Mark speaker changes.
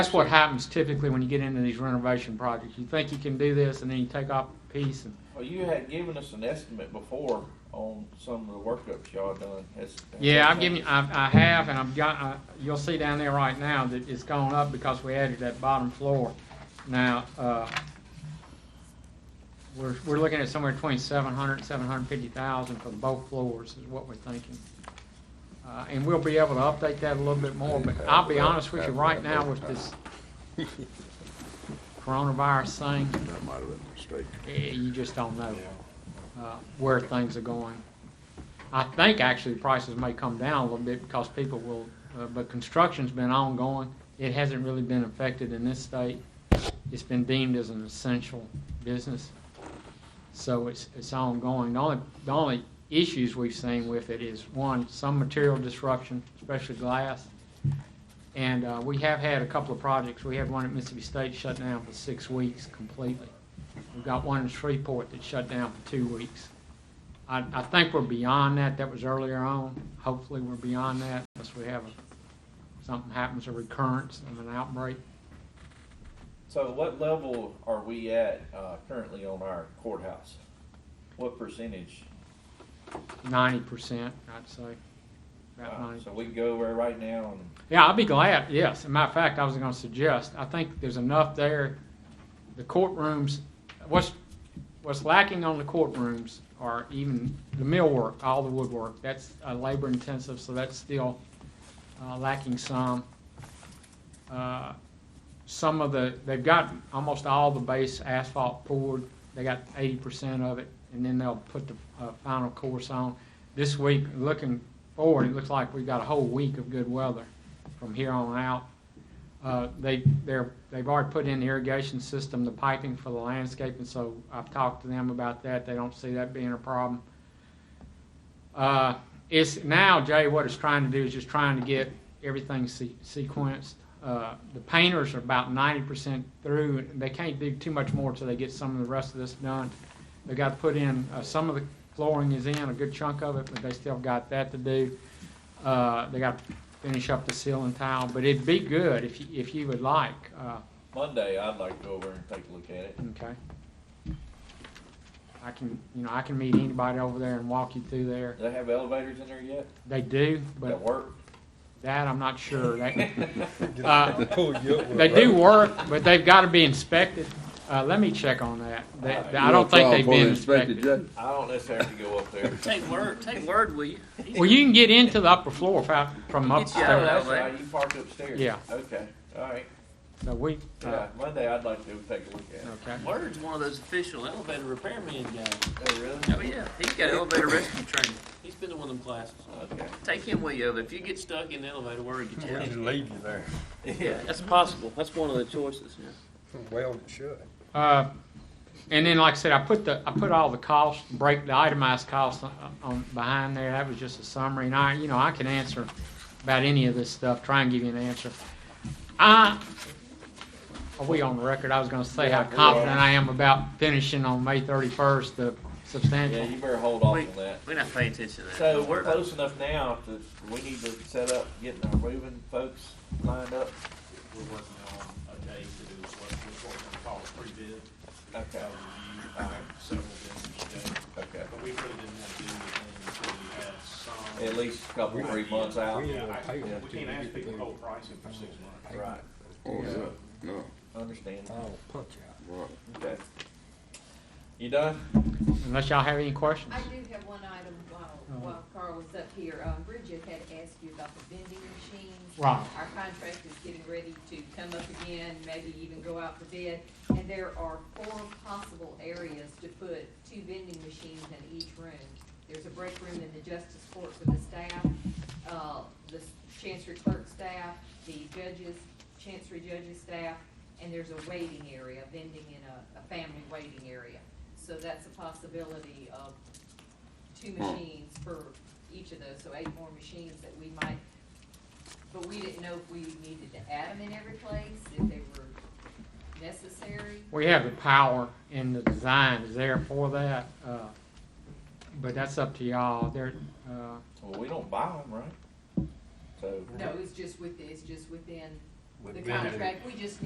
Speaker 1: That's what happens typically when you get into these renovation projects. You think you can do this, and then you take off a piece, and
Speaker 2: Well, Oh, you had given us an estimate before on some of the workups y'all done. Has-
Speaker 1: Yeah, I've given, you- I've, I have, and I've got, I- you'll see down there right now that it's gone up because we added that bottom floor. Now, uh, we're, we're looking at somewhere between seven hundred and seven hundred fifty thousand for both floors is what we're thinking. Uh, and we'll be able to update that a little bit more, but I'll be honest with you, right now with this coronavirus thing,
Speaker 3: That might have been a mistake.
Speaker 1: eh, you just don't know uh, where things are going. I think actually prices may come down a little bit because people will, uh, but construction's been ongoing. It hasn't really been affected in this state. It's been deemed as an essential business, so it's, it's ongoing. The only, the only issues we've seen with it is, one, some material disruption, especially glass. And uh, we have had a couple of projects. We had one at Mississippi State shut down for six weeks completely. We've got one in Shreveport that shut down for two weeks. I, I think we're beyond that. That was earlier on. Hopefully, we're beyond that unless we have, a- something happens, a recurrence of an outbreak.
Speaker 2: So what level are we at uh, currently on our courthouse? What percentage?
Speaker 1: Ninety percent, I'd say. About
Speaker 2: Uh,
Speaker 1: ninety.
Speaker 2: So we go over right now and
Speaker 1: Yeah, I'd be glad, yes. As a matter of fact, I was gonna suggest, I think there's enough there. The courtrooms, what's, what's lacking on the courtrooms are even the millwork, all the woodwork. That's uh, labor intensive, so that's still uh, lacking some. Uh, Some of the, they've got almost all the base asphalt poured. They got eighty percent of it, and then they'll put the uh, final course on. This week, looking forward, it looks like we've got a whole week of good weather from here on out. Uh, They, they're, they've already put in the irrigation system, the piping for the landscaping, so I've talked to them about that. They don't see that being a problem. Uh, It's now, Jay, what it's trying to do is just trying to get everything se- sequenced. Uh, The painters are about ninety percent through, and they can't do too much more till they get some of the rest of this done. They got to put in, uh, some of the flooring is in, a good chunk of it, but they still got that to do. Uh, They got to finish up the ceiling tile, but it'd be good if you, if you would like, uh,
Speaker 2: Monday, I'd like to go over and take a look at it.
Speaker 1: okay? I can, you know, I can meet anybody over there and walk you through there.
Speaker 2: Do they have elevators in there yet?
Speaker 1: They do,
Speaker 2: That
Speaker 1: but
Speaker 2: work?
Speaker 1: that I'm not sure. That- uh,
Speaker 4: Pull you up with
Speaker 1: They
Speaker 4: a
Speaker 1: do
Speaker 4: rope.
Speaker 1: work, but they've got to be inspected. Uh, let me check on that. They- I don't think they've been inspected.
Speaker 2: I don't necessarily have to go up there.
Speaker 5: Take word, take word, will you?
Speaker 1: Well, you can get into the upper floor fi- from
Speaker 5: Get you out
Speaker 2: Oh,
Speaker 5: of
Speaker 1: upstairs.
Speaker 2: that's right, you parked upstairs.
Speaker 1: Yeah.
Speaker 2: Okay, all right.
Speaker 1: So we, uh,
Speaker 2: Yeah, Monday, I'd like to take a look at it.
Speaker 1: okay.
Speaker 5: Word's one of those official elevator repairman guys.
Speaker 2: Oh, really?
Speaker 5: Oh yeah, he's got elevator rescue training. He's been to one of them classes.
Speaker 2: Okay.
Speaker 5: Take him with you. If you get stuck in the elevator, word gets you
Speaker 4: We
Speaker 5: out.
Speaker 4: should leave you there.
Speaker 5: Yeah, that's possible. That's one of the choices. Yeah.
Speaker 4: Well, it should.
Speaker 1: Uh, and then, like I said, I put the, I put all the costs, break the itemized costs on, on behind there. That was just a summary. And I, you know, I can answer about any of this stuff, try and give you an answer. I, are we on the record? I was gonna say how
Speaker 2: Yeah, we are.
Speaker 1: confident I am about finishing on May thirty-first, the
Speaker 2: Yeah,
Speaker 1: substantial.
Speaker 2: you better hold off
Speaker 5: We,
Speaker 2: on that.
Speaker 5: we're not paying attention to that.
Speaker 2: So
Speaker 5: But
Speaker 2: we're
Speaker 5: we're-
Speaker 2: close enough now to, we need to set up, getting our moving folks lined up.
Speaker 6: We're working on a day to do what we're going to call a pre-bid,
Speaker 2: Okay,
Speaker 6: uh, review by several vendors today.
Speaker 2: okay.
Speaker 6: But we really didn't want to do anything until we had some.
Speaker 2: At least a couple, three months out.
Speaker 4: We-
Speaker 6: Yeah, I-
Speaker 4: Yeah.
Speaker 6: We can't ask people to hold pricing for six months.
Speaker 2: Right,
Speaker 3: Oh, yeah, no,
Speaker 2: understand.
Speaker 4: I'll punch out.
Speaker 3: right.
Speaker 2: Okay. You done?
Speaker 1: Unless y'all have any questions. Uh-huh.
Speaker 7: I do have one item while, while Carl was up here. Um, Bridget had asked you about the vending machines.
Speaker 1: Right.
Speaker 7: Our contract is getting ready to come up again, maybe even go out for bid. And there are four possible areas to put two vending machines in each room. There's a break room in the justice court for the staff, uh, the chancery clerk staff, the judges, chancery judges staff, and there's a waiting area, vending in a, a family waiting area. So that's a possibility of two machines for each of those, so eight more machines that we might, but we didn't know if we needed to add them in every place, if they were necessary.
Speaker 1: We have the power and the design is there for that, uh, but that's up to y'all. There, uh,
Speaker 2: Well, we don't buy them, right? So,
Speaker 7: No, it's just with, it's just within the contract, we just